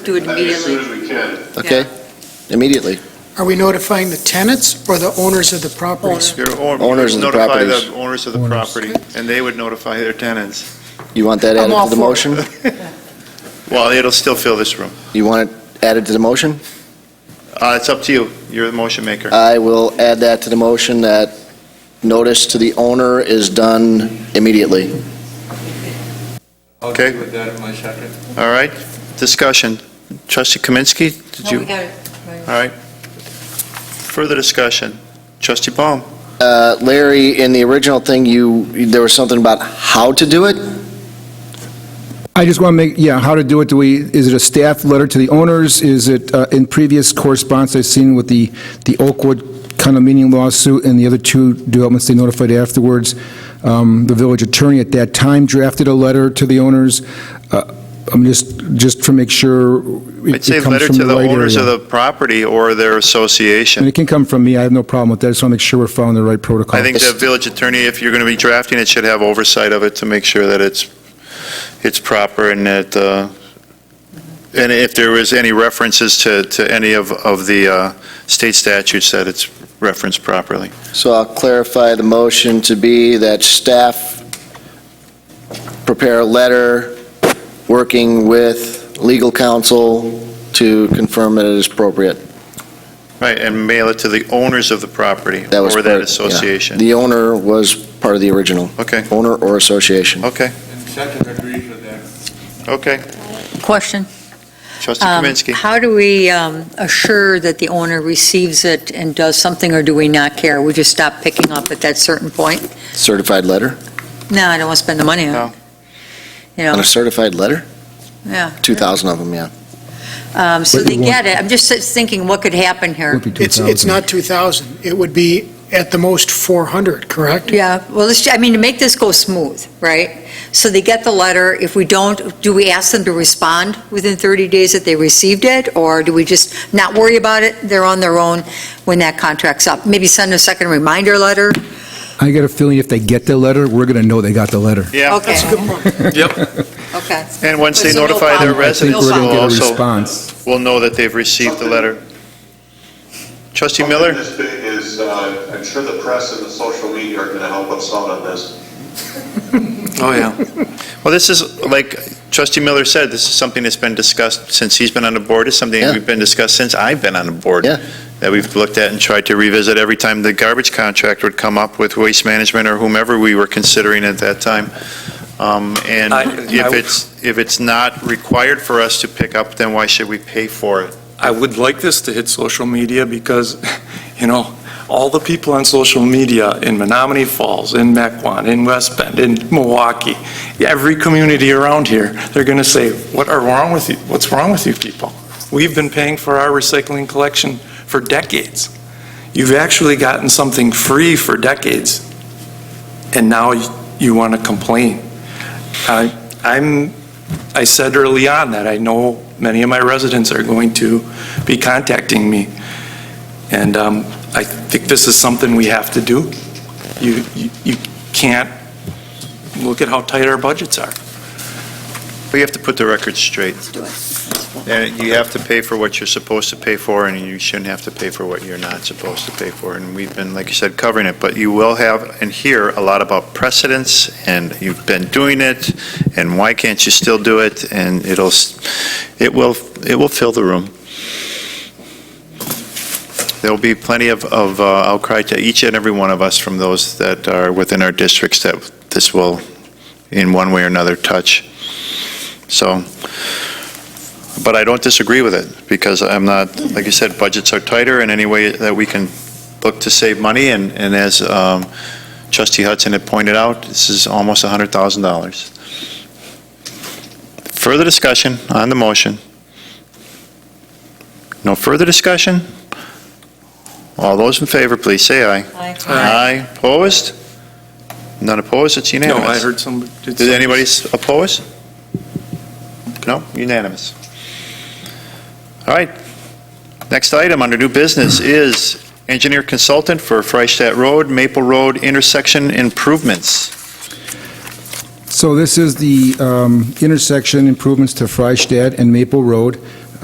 Do it I mean, as soon immediately. as we can. Okay, immediately. Are we notifying the tenants or the owners of the properties? Your own- Owners of the Notify properties. the owners of the property, and they would notify their tenants. You want that I'm added all to the for it. motion? Well, it'll still fill this room. You want it added to the motion? Uh, It's up to you. You're the motion maker. I will add that to the motion, that notice to the owner is done immediately. I'll Okay. agree with that in my second. All right, discussion. Trustee Kaminsky, did No, we you, got it. Right. all right. Further discussion. Trustee Baum, Uh, Larry, in the original thing, you, there was something about how to do it? I just want to make, yeah, how to do it, do we, is it a staff letter to the owners? Is it, uh, in previous correspondence I've seen with the, the Oakwood condominium lawsuit and the other two developments they notified afterwards, um, the village attorney at that time drafted a letter to the owners. Uh, I'm just, just to make sure I'd it say it comes letter from to the the right owners of area. the property or their And association. it can come from me, I have no problem with that, I just want to make sure we're following the right protocol. I think the village attorney, if you're going to be drafting it, should have oversight of it to make sure that it's, it's proper and that, uh, and if there is any references to, to any of, of the uh, state statutes, that it's referenced properly. So I'll clarify the motion to be that staff prepare a letter working with legal counsel to confirm that it is appropriate. Right, and mail it to the owners of the property That was or that part- yeah. association. The owner was part of the original, Okay, owner or association. okay, And second agrees with that. okay. Question. Trustee Um, Kaminsky. How do we um, assure that the owner receives it and does something, or do we not care? We just stop picking up at that certain point? Certified letter? No, I don't want to spend the money on No. it. You On know, a certified letter? yeah. 2,000 of them, yeah. Um, So But they you get it. I'm just thinking, what could happen here? Would be It's, it's 2,000. not 2,000. It would be at the most 400, correct? Yeah, well, let's, I mean, to make this go smooth, right? So they get the letter. If we don't, do we ask them to respond within 30 days that they received it? Or do we just not worry about it? They're on their own when that contract's up. Maybe send a second reminder letter? I got a feeling if they get the letter, we're going to know they got the letter. Yeah, Okay. That's a good point. Okay. and once they So no notify their problem. I I think residents, we're going they'll to get a also, response. will know that they've received the letter. Trustee Miller? This big is, uh, I'm sure the press and the social media are going to help us out on this. Oh, yeah. Well, this is, like trustee Miller said, this is something that's been discussed since he's been on the board, it's something Yeah. we've been discussed since I've been on the board. Yeah. That we've looked at and tried to revisit every time the garbage contract would come up with waste management or whomever we were considering at that time. Um, And I- if I- it's, if it's not required for us to pick up, then why should we pay for it? I would like this to hit social media because, you know, all the people on social media in Menominee Falls, in Mequon, in West Bend, in Milwaukee, every community around here, they're going to say, what are wrong with you? What's wrong with you people? We've been paying for our recycling collection for decades. You've actually gotten something free for decades, and now you want to complain. I- I'm, I said early on that I know many of my residents are going to be contacting me. And um, I think this is something we have to do. You, you- you can't, look at how tight our budgets are. We have to put the record straight. And you have to pay for what you're supposed to pay for, and you shouldn't have to pay for what you're not supposed to pay for. And we've been, like you said, covering it, but you will have and hear a lot about precedents, and you've been doing it, and why can't you still do it? And it'll, s- it will, it will fill the room. There'll be plenty of, of uh, outcry to each and every one of us from those that are within our districts that this will, in one way or another, touch. So, but I don't disagree with it, because I'm not, like you said, budgets are tighter in any way that we can look to save money, and, and as um, trustee Hudson had pointed out, this is almost $100,000. Further discussion on the motion? No further discussion? All those in favor, please say aye. Aye. Opposed? None opposed, it's No, unanimous. I heard some. Did anybody s- oppose? No, unanimous. All right. Next item under new business is engineer consultant for Freistadt Road, Maple Road intersection improvements. So this is the um, intersection improvements to Freistadt and Maple Road.